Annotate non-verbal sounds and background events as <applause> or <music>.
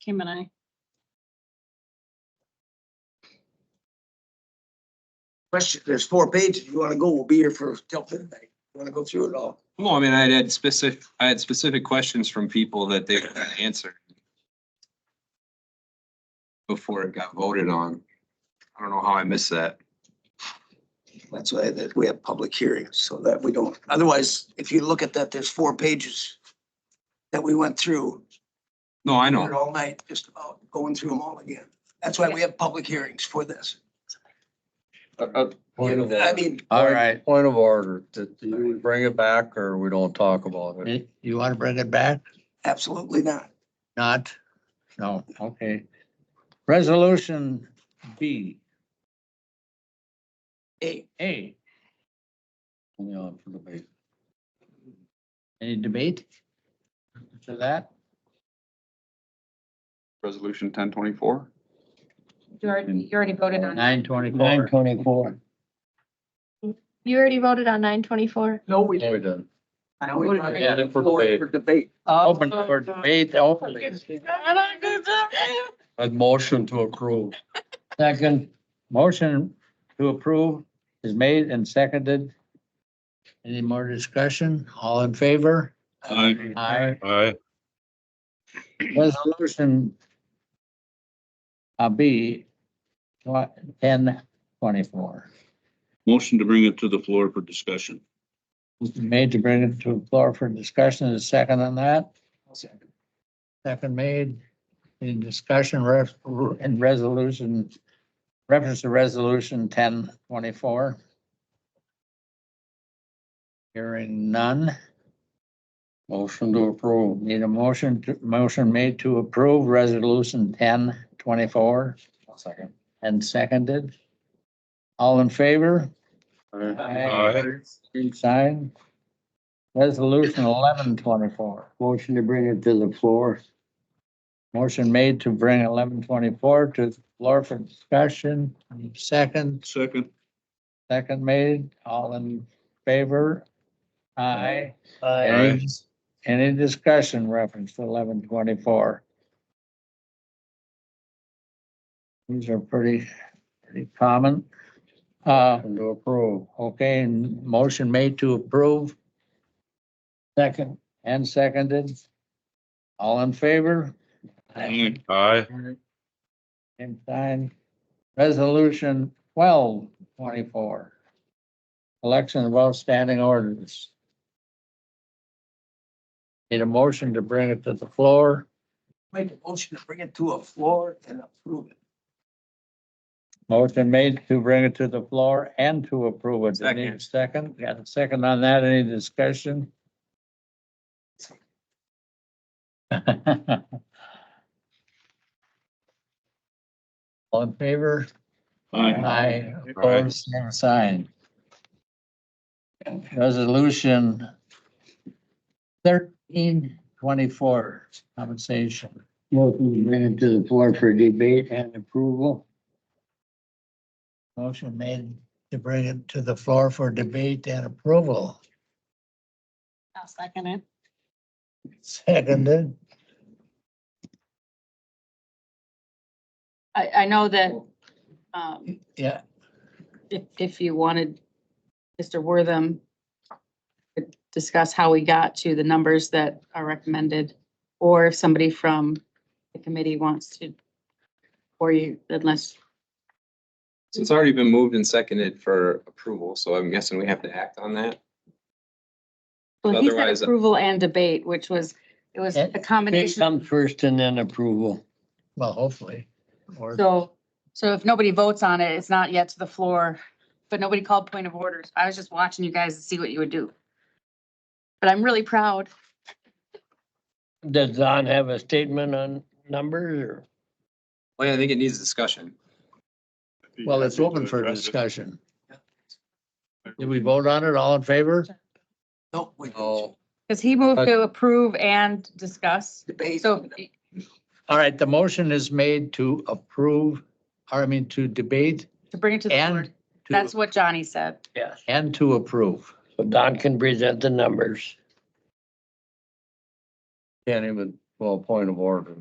Kim and I. Question, there's four pages. You wanna go, we'll be here for till midnight. You wanna go through it all? Well, I mean, I had specific, I had specific questions from people that they would answer before it got voted on. I don't know how I missed that. That's why that we have public hearings so that we don't, otherwise, if you look at that, there's four pages that we went through No, I here know. all night, just about going through them all again. That's why we have public hearings for this. Point of I order. mean, All right, Point of order, that you bring it back or we don't talk about it. you you want to bring it back? absolutely not. Not? No, okay. Resolution B, Hey, A. Only on for debate. Any debate to that? Resolution ten twenty-four? You already, you already voted on, Nine twenty-four. Nine twenty-four. You already voted on nine twenty-four. no, we. Yeah, we done. I always wanna Yeah, have for floor debate. For debate. Open for debate, open. it. A motion to approve. Second, motion to approve is made and seconded. Any more discussion? All in favor? Aye. Aye. Resolution uh, B, ten twenty-four, Motion to bring it to the floor for discussion. made to bring it to the floor for discussion, is second on that? Second made, any discussion ref, in resolution, reference to resolution ten twenty-four? Hearing none. Motion to approve. Need a motion, to- motion made to approve resolution ten twenty-four. Second. And seconded. All in favor? Aye. Same Sign. Resolution eleven twenty-four. Motion to bring it to the floor. Motion made to bring eleven twenty-four to the floor for discussion. Second, Second. second made, all in favor? Aye. Aye. Any discussion reference to eleven twenty-four? These are pretty, pretty common. Uh, to approve, okay, and motion made to approve. Second and seconded. All in favor? Aye. Same sign. Resolution twelve twenty-four. Election of outstanding orders. Need a motion to bring it to the floor. Make a motion to bring it to a floor and approve it. Motion made to bring it to the floor and to approve it. Do you need a Second, got a second on that. Any discussion? <laughs> All in favor? Aye, opposed, same sign. Resolution thirteen twenty-four, compensation. Motion to bring it to the floor for debate and approval. Motion made to bring it to the floor for debate and approval. I'll second it. Seconded. I, I know that, um, Yeah, if, if you wanted Mr. Wortham to discuss how we got to the numbers that are recommended, or if somebody from the committee wants to, or you, unless, So it's already been moved and seconded for approval, so I'm guessing we have to act on that. well, he Otherwise- said approval and debate, which was, it was a It- combination. first and then approval. well, hopefully. Or So, so if nobody votes on it, it's not yet to the floor, but nobody called point of orders. I was just watching you guys to see what you would do. But I'm really proud. Does Don have a statement on numbers or? Well, I think it needs discussion. Well, it's open for discussion. Did we vote on it? All in favor? No, we don't Oh. Because he moved to approve and discuss. debate. So All right, the motion is made to approve, or I mean, to debate to bring it to the and board, to- that's what Johnny said. Yes. and to approve. So Don can present the numbers. Can't even, well, point of order.